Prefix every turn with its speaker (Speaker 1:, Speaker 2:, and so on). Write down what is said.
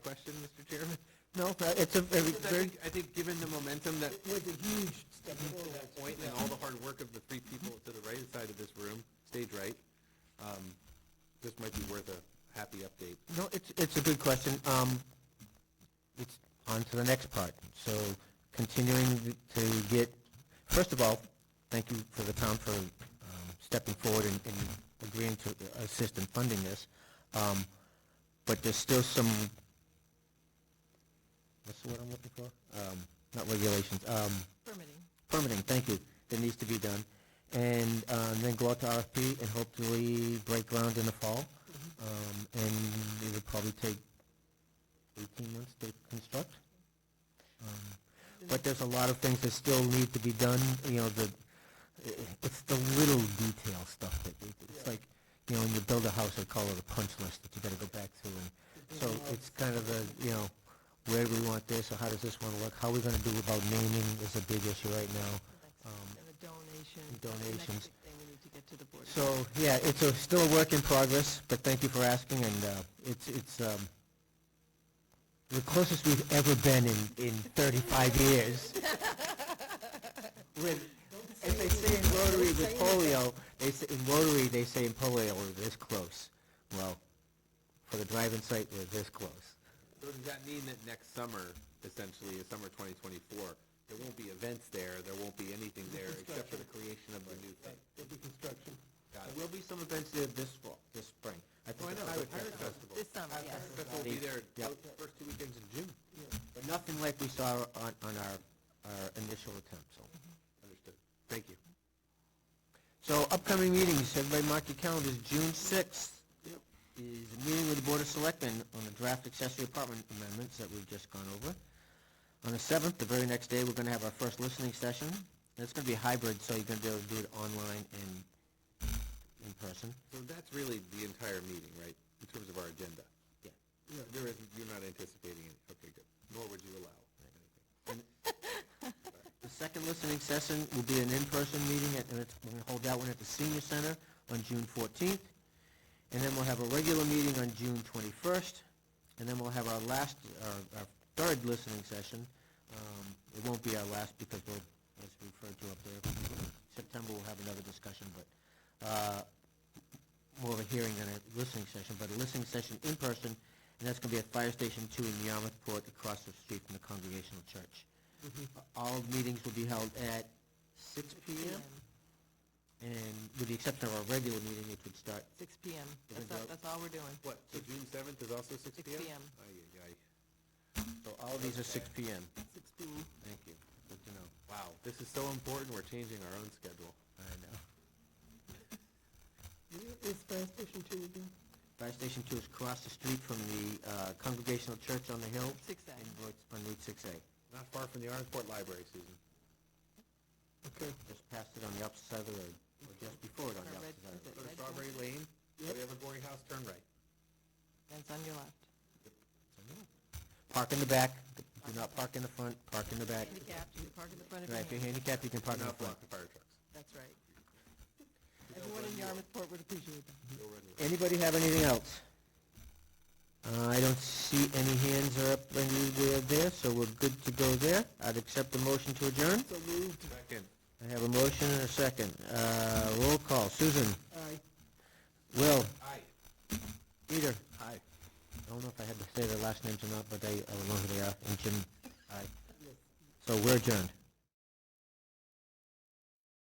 Speaker 1: No, but it's a very,
Speaker 2: Because I
Speaker 1: very,
Speaker 2: think, I think given the momentum that,
Speaker 3: It was a huge step forward.
Speaker 2: that point and all the hard work of the three people to the right side of this room, stage right, um, this might be worth a happy update.
Speaker 1: no, it's, it's a good question. Um, it's on to the next part. So continuing th- to get, first of all, thank you for the town for um, stepping forward and, and agreeing to assist in funding this. Um, but there's still some, what's the word I'm looking for? Um, not regulations, um,
Speaker 4: Permitting.
Speaker 1: permitting, thank you, that needs to be done. And um, then go out to RFP and hopefully break ground in the fall. Um, And it would probably take 18 months to construct. Um, But there's a lot of things that still need to be done, you know, the, it's the little detail stuff that, we- it's like, you know, when you build a house, they call it a punch list that you gotta go back through. and So it's kind of a, you know, where do we want this, or how does this one look? How are we gonna do about naming is a big issue right now. Um,
Speaker 4: And a donation.
Speaker 1: and donations.
Speaker 4: Next big thing we need to get to the board.
Speaker 1: So, yeah, it's a, still a work in progress, but thank you for asking, and, uh, it's, it's, um, the closest we've ever been in, in thirty-five years. With, as they say in Rotary with polio, they say, in Rotary, they say in polio, we're this close. Well, for the drive-in site, we're this close.
Speaker 2: So does that mean that next summer, essentially, is summer twenty twenty-four, there won't be events there, there won't be anything there except for the creation of the new thing?
Speaker 3: There'll be construction.
Speaker 2: Got
Speaker 1: There
Speaker 2: it.
Speaker 1: will be some events there this fall, this spring. I
Speaker 2: Oh, I
Speaker 1: think
Speaker 2: know,
Speaker 1: the
Speaker 2: the
Speaker 1: Pirate
Speaker 2: Pirate
Speaker 1: Festival.
Speaker 2: Festival.
Speaker 4: This summer,
Speaker 2: Pirate
Speaker 4: yes.
Speaker 2: Festival will be there,
Speaker 1: Yep.
Speaker 2: first two weekends in June.
Speaker 1: But nothing like we saw on, on our, our initial attempt, so.
Speaker 2: Understood. Thank you.
Speaker 1: So upcoming meetings, everybody mark your calendars, June sixth is a meeting with the Board of Selectmen on the draft accessory apartment amendments that we've just gone over. On the seventh, the very next day, we're gonna have our first listening session. And It's gonna be hybrid, so you're gonna be able to do it online and in person.
Speaker 2: So that's really the entire meeting, right, in terms of our agenda?
Speaker 1: Yeah.
Speaker 2: There isn't, you're not anticipating it, okay, good, nor would you allow anything.
Speaker 1: The second listening session will be an in-person meeting, at- and it's, we're gonna hold that one at the senior center on June fourteenth. And then we'll have a regular meeting on June twenty-first, and then we'll have our last, our, our third listening session. Um, it won't be our last because we'll, as we referred to up there, September we'll have another discussion, but, uh, more of a hearing than a listening session, but a listening session in person, and that's gonna be at Fire Station Two in Yarmouthport, across the street from the Congregational Church. All meetings will be held at six P M, and with the exception of our regular meeting, which would start,
Speaker 4: Six PM.
Speaker 1: Even
Speaker 4: That's all,
Speaker 1: though-
Speaker 4: that's all we're doing.
Speaker 2: What, so June seventh is also six
Speaker 4: 6
Speaker 2: P M?
Speaker 4: p.m..
Speaker 1: so all these are six P M.
Speaker 4: Six PM.
Speaker 1: Thank you. Good to know.
Speaker 2: Wow, this is so important, we're changing our own schedule.
Speaker 1: I know.
Speaker 3: Is fire station two again?
Speaker 1: Fire Station Two is across the street from the uh, Congregational Church on the hill.
Speaker 4: Six A.
Speaker 1: and it's On Route six A,
Speaker 2: Not far from the Orangeburg Library, Susan.
Speaker 3: Okay.
Speaker 1: just past it on the opposite side of the road, or just before it on the
Speaker 4: Our red-
Speaker 1: opposite side. of the road.
Speaker 2: Go to
Speaker 4: Right.
Speaker 2: Strawberry Lane, go to Evergreen House, turn right.
Speaker 4: That's on your left.
Speaker 1: Park in the back, do not park in the front, park in the back.
Speaker 4: Handicapped, you park in the front of
Speaker 1: Right,
Speaker 4: your
Speaker 1: if you're
Speaker 4: hand.
Speaker 1: handicapped, you can park
Speaker 2: Do
Speaker 1: in the
Speaker 2: not
Speaker 1: front.
Speaker 2: block the fire trucks.
Speaker 4: That's right. Everyone in Yarmouthport would appreciate that.
Speaker 1: Mm-hmm.
Speaker 2: Go run your-
Speaker 1: Anybody have anything else? Uh, I don't see any hands are up anywhere there, so we're good to go there. I'd accept the motion to adjourn.
Speaker 3: So moved.
Speaker 2: Second.
Speaker 1: I have a motion and a second. Uh, roll call. Susan?
Speaker 3: Aye.
Speaker 1: Will?
Speaker 2: Aye.
Speaker 1: Peter? Aye. I don't know if I had to say their last names or not, but they, I don't know who they are. And Jim? Aye. So we're adjourned.